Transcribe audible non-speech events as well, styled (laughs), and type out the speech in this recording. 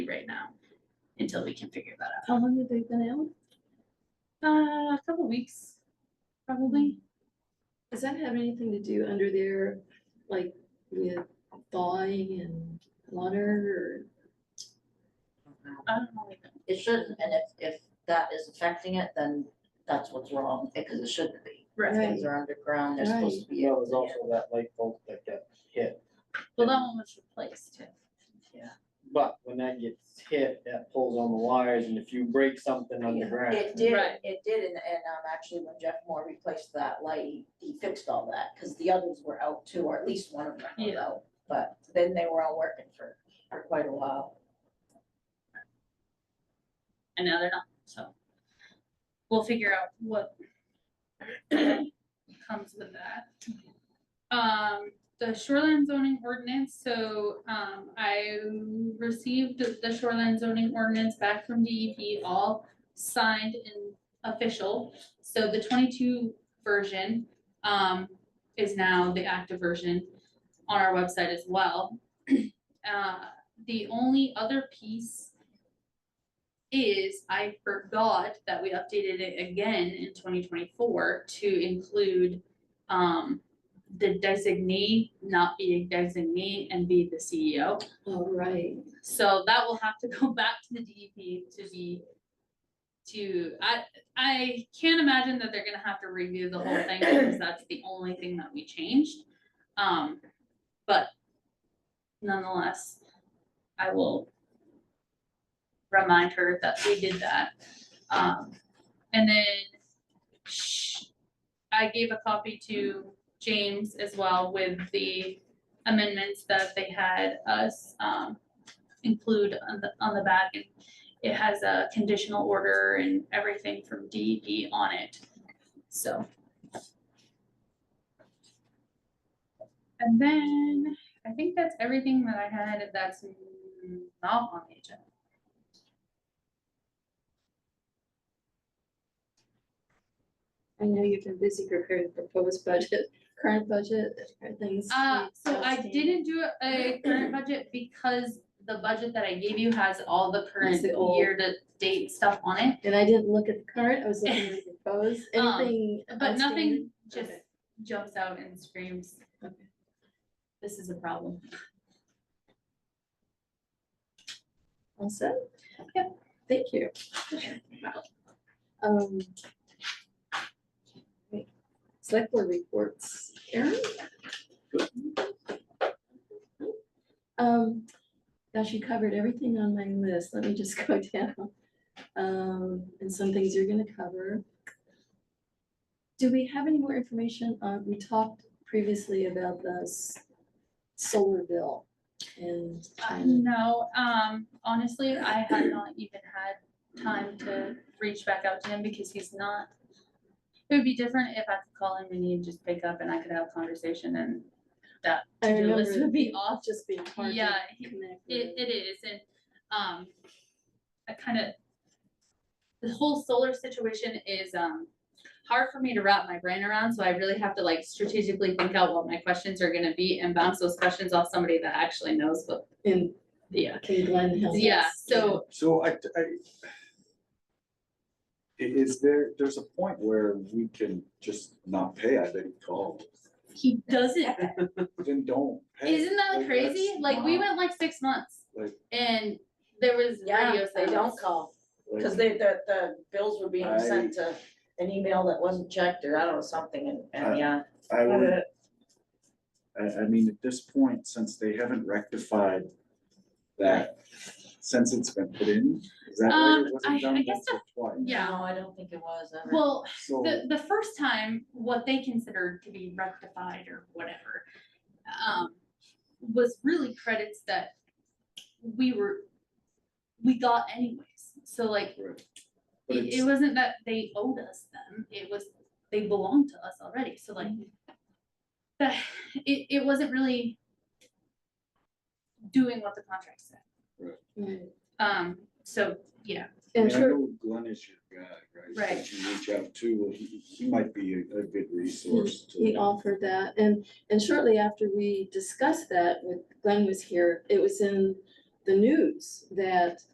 right now, until we can figure that out. How long have they been out? Uh, a couple weeks, probably. Does that have anything to do under there, like with thawing and water I don't know. It shouldn't, and if, if that is affecting it, then that's what's wrong, because it shouldn't be. Right. Things are underground, they're supposed to be. Well, there's up also that light bulb that got hit, Well, that one was replaced too. but when that gets hit, that pulls on the wires, and if you break something there. underground, It did, Right. it did, and, and, um, actually when Jeff Moore replaced that light, he fixed all that, because the others were out too, or at least one of them was Yeah. out. But then they were all working for, for quite a while. And now they're not, so. We'll figure out what comes with that. Um, the shoreline zoning ordinance, so, um, I received the shoreline zoning ordinance back from DEP, all signed and official. So the twenty-two version, um, is now the active version on our website as well. Uh, the only other piece is I forgot that we updated it again in twenty twenty-four to include um the designee not be a designee and be the E CEO. or, oh, right, So that will have to go (laughs) back to the DEP to be to, I I can't imagine that they're gonna have to review the whole thing because that's the only thing that we changed. Um, but nonetheless, I will remind her that we did that. Um, and then sh- I gave a copy to James as well with the amendments that they had us, um, include on the, on the back. And It has a conditional order and everything from DEP on it, so. And then I think that's everything that I had that's not on the agenda. I know you've been busy preparing the proposed budget, current budget, are things. Uh, so I outstanding? didn't do a current budget because the budget that I gave you has all the current It's the old- year to date stuff on it. And I didn't look at the current, I was looking at the proposed, (laughs) Um, anything. But nothing outstanding? just Okay. jumps out and screams. Okay. This is a problem. All set? Yep. Thank you. Um. wait, Select board reports, Erin? Um, gosh, you covered everything on my list, let me just (laughs) go down. Um, and some things you're gonna cover. Do we have any more information, uh, we talked previously about the s- solar bill and. Uh, timing. No, um, honestly, I had not even had time to reach back out to him because he's not. It would be different if I could call him and he'd just pick up and I could have a conversation and that I to-do list remember would be it off. just being hard Yeah, to he- connect. It, it is, and, um, I kind of, the whole solar situation is, um, hard for me to wrap my brain around, so I really have to like strategically think out what my questions are gonna be and bounce those questions off somebody that actually knows what, with. And yeah. King Glen Hill. Yeah, yes, so, So I, I. i- Is there, there's a point where we can just not pay, I bet he called, he doesn't, then don't pay. isn't that crazy? that's Like, we not- went like six months, Like- and there was Yeah, radio they don't silence. call, like, because they, the, the bills were being sent to an email that wasn't checked, or I don't know, something, and, and yeah. I would, I, I mean, at this point, since they haven't rectified that, since it's been put in, is that Um, why it I- I wasn't done guess once or twice? Yeah. No, I don't think it was ever. Well, So, The, the first time, what they considered to be rectified or whatever, um, was really credits that we were, we got anyways. So like, right. But it, it's, it wasn't that they owed us them, it was, they belonged to us already, so like, Mm-hmm. that, (sighs) it, it wasn't really doing what the contract said. right. Um, so, yeah, I And mean, I sure, know Glenn is your guy, right? Right. That you reach out to, well, he, he might be a, a good resource to. he offered that, and, and shortly after we discussed that, when Glenn was here, it was in the news that